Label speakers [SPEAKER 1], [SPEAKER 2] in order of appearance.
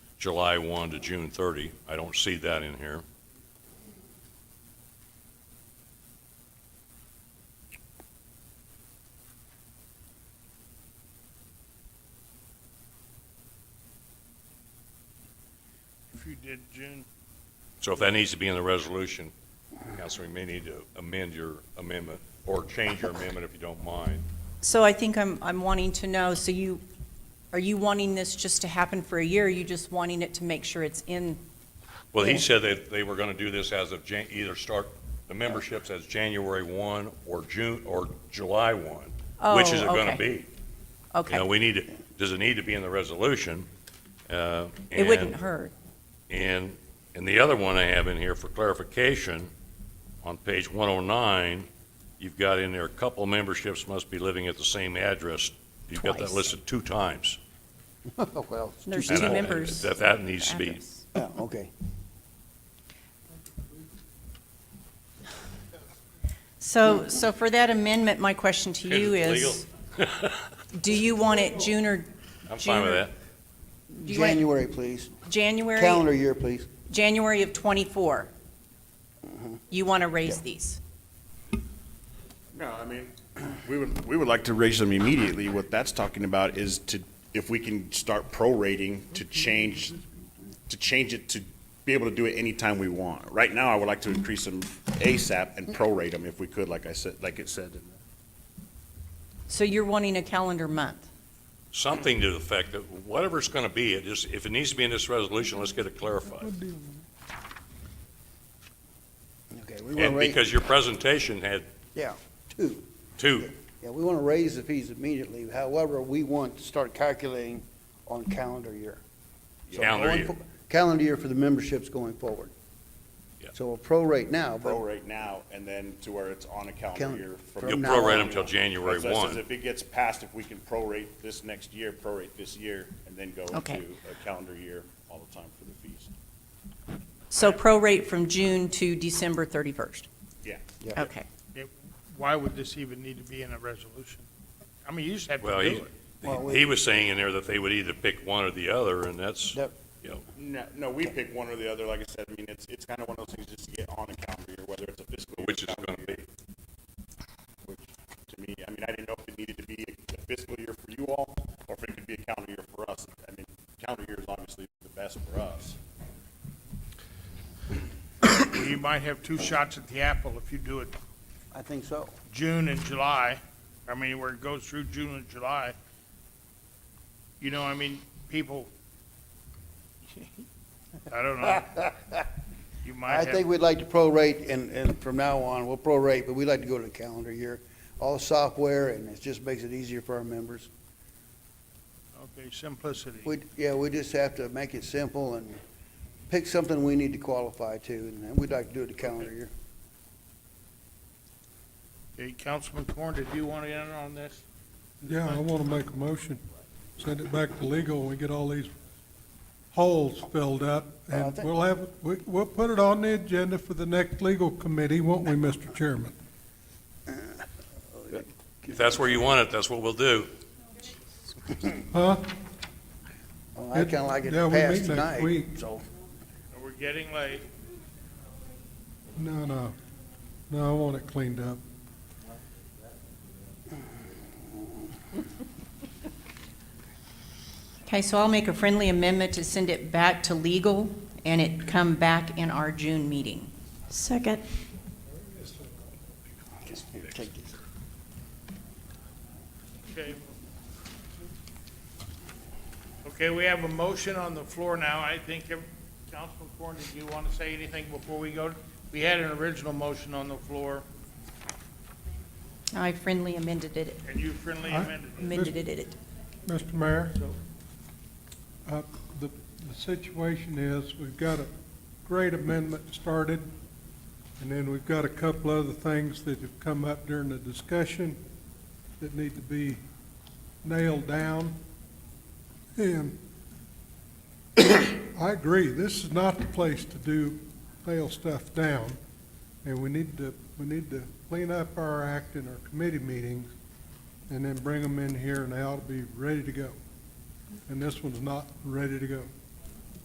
[SPEAKER 1] July 1 to June 30. I don't see that in here.
[SPEAKER 2] If you did June,
[SPEAKER 1] So if that needs to be in the resolution, Counselor, you may need to amend your amendment or change your amendment if you don't mind.
[SPEAKER 3] So I think I'm, I'm wanting to know, so you, are you wanting this just to happen for a year? Are you just wanting it to make sure it's in?
[SPEAKER 1] Well, he said that they were going to do this as of, Jan- either start the memberships as January 1 or June, or July 1. Which is it
[SPEAKER 3] Oh,
[SPEAKER 1] going to
[SPEAKER 3] okay,
[SPEAKER 1] be? You know,
[SPEAKER 3] Okay,
[SPEAKER 1] we need, to. does it need to be in the resolution? Uh,
[SPEAKER 3] it wouldn't
[SPEAKER 1] and-
[SPEAKER 3] hurt.
[SPEAKER 1] And, and the other one I have in here for clarification, on page 109, you've got in there, couple memberships must be living at the same address. You've got that
[SPEAKER 3] Twice.
[SPEAKER 1] listed two times.
[SPEAKER 4] Oh, Well, it's
[SPEAKER 3] There's
[SPEAKER 4] too-
[SPEAKER 1] And
[SPEAKER 3] two
[SPEAKER 1] I-
[SPEAKER 3] members.
[SPEAKER 1] That, that needs to be,
[SPEAKER 3] Address.
[SPEAKER 4] yeah, okay.
[SPEAKER 3] So, so for that amendment, my question to you
[SPEAKER 1] Is it
[SPEAKER 3] is, do you want it June or
[SPEAKER 1] I'm fine with that.
[SPEAKER 3] do you want it
[SPEAKER 4] January, please. Calendar
[SPEAKER 3] January,
[SPEAKER 4] year, please.
[SPEAKER 3] January of '24? You want to raise these?
[SPEAKER 5] No, I mean, we would, we would like to raise them immediately. What that's talking about is to, if we can start prorating to change, to change it to be able to do it anytime we want. Right now, I would like to increase them ASAP and prorate them if we could, like I said, like it said.
[SPEAKER 3] So you're wanting a calendar month?
[SPEAKER 1] Something to the effect that whatever it's going to be, it just, if it needs to be in this resolution, let's get it clarified.
[SPEAKER 4] Okay, we want to
[SPEAKER 1] And
[SPEAKER 4] raise,
[SPEAKER 1] because your presentation had
[SPEAKER 4] yeah, two.
[SPEAKER 1] two,
[SPEAKER 4] Yeah, we want to raise the fees immediately. However, we want to start calculating on calendar year. So
[SPEAKER 1] Calendar
[SPEAKER 4] going
[SPEAKER 1] year.
[SPEAKER 4] fo- Calendar year for the memberships going forward.
[SPEAKER 1] Yeah.
[SPEAKER 4] So we'll prorate now, but
[SPEAKER 5] Prorate now and then to where it's on a
[SPEAKER 4] Count-
[SPEAKER 5] calendar year. from-
[SPEAKER 1] you'll
[SPEAKER 4] From now
[SPEAKER 1] prorate
[SPEAKER 4] on.
[SPEAKER 1] them till January
[SPEAKER 5] That's- that's
[SPEAKER 1] 1.
[SPEAKER 5] If it gets passed, if we can prorate this next year, prorate this year, and then go
[SPEAKER 3] Okay.
[SPEAKER 5] into a calendar year all the time for the fees.
[SPEAKER 3] So prorate from June to December 31st?
[SPEAKER 5] Yeah.
[SPEAKER 4] Yeah.
[SPEAKER 3] Okay.
[SPEAKER 2] why would this even need to be in a resolution? I mean, you just have to
[SPEAKER 1] Well,
[SPEAKER 2] do
[SPEAKER 1] he-
[SPEAKER 2] it.
[SPEAKER 4] Well, we-
[SPEAKER 1] he was saying in there that they would either pick one or the other, and that's,
[SPEAKER 4] Yep.
[SPEAKER 1] you know,
[SPEAKER 5] No, no, we pick one or the other, like I said, I mean, it's, it's kind of one of those things just to get on a calendar year, whether it's a fiscal. year
[SPEAKER 1] Which it's
[SPEAKER 5] calendar
[SPEAKER 1] gonna be.
[SPEAKER 5] year. Which, to me, I mean, I didn't know if it needed to be a fiscal year for you all, or if it could be a calendar year for us. I mean, calendar year is obviously the best for us.
[SPEAKER 2] You might have two shots at the apple if you do it
[SPEAKER 4] I think so.
[SPEAKER 2] June and July. I mean, where it goes through June and July. You know, I mean, people, I don't know. You might
[SPEAKER 4] I think
[SPEAKER 2] have,
[SPEAKER 4] we'd like to prorate and, and from now on, we'll prorate, but we'd like to go to the calendar year. All software and it just makes it easier for our members.
[SPEAKER 2] okay, simplicity.
[SPEAKER 4] We, yeah, we just have to make it simple and pick something we need to qualify to, and we'd like to do it the calendar year.
[SPEAKER 2] Okay, Councilman Corn, did you want to enter on this?
[SPEAKER 6] Yeah, I want to make a motion, send it back to legal, and we get all these holes filled up,
[SPEAKER 4] Well, I
[SPEAKER 6] and
[SPEAKER 4] think-
[SPEAKER 6] we'll have, we, we'll put it on the agenda for the next legal committee, won't we, Mr. Chairman?
[SPEAKER 1] if that's where you want it, that's what we'll do.
[SPEAKER 6] Huh?
[SPEAKER 4] Well, I kinda like it
[SPEAKER 6] Yeah, we
[SPEAKER 4] passed
[SPEAKER 6] meet next
[SPEAKER 4] tonight,
[SPEAKER 6] week.
[SPEAKER 4] so.
[SPEAKER 2] We're getting late.
[SPEAKER 6] No, no, no, I want it cleaned up.
[SPEAKER 3] Okay, so I'll make a friendly amendment to send it back to legal and it come back in our June meeting. Second.
[SPEAKER 2] Okay. Okay, we have a motion on the floor now. I think, ev- Councilman Corn, did you want to say anything before we go? We had an original motion on the floor,
[SPEAKER 3] I friendly amended it,
[SPEAKER 2] and you friendly
[SPEAKER 6] Aye.
[SPEAKER 2] amended it.
[SPEAKER 3] amended it, it.
[SPEAKER 6] Mr. Mayor? Uh, The the situation is, we've got a great amendment started, and then we've got a couple other things that have come up during the discussion that need to be nailed down. And I agree, this is not the place to do, nail stuff down, and we need to, we need to clean up our act in our committee meetings and then bring them in here, and they ought to be ready to go. And this one's not ready to go.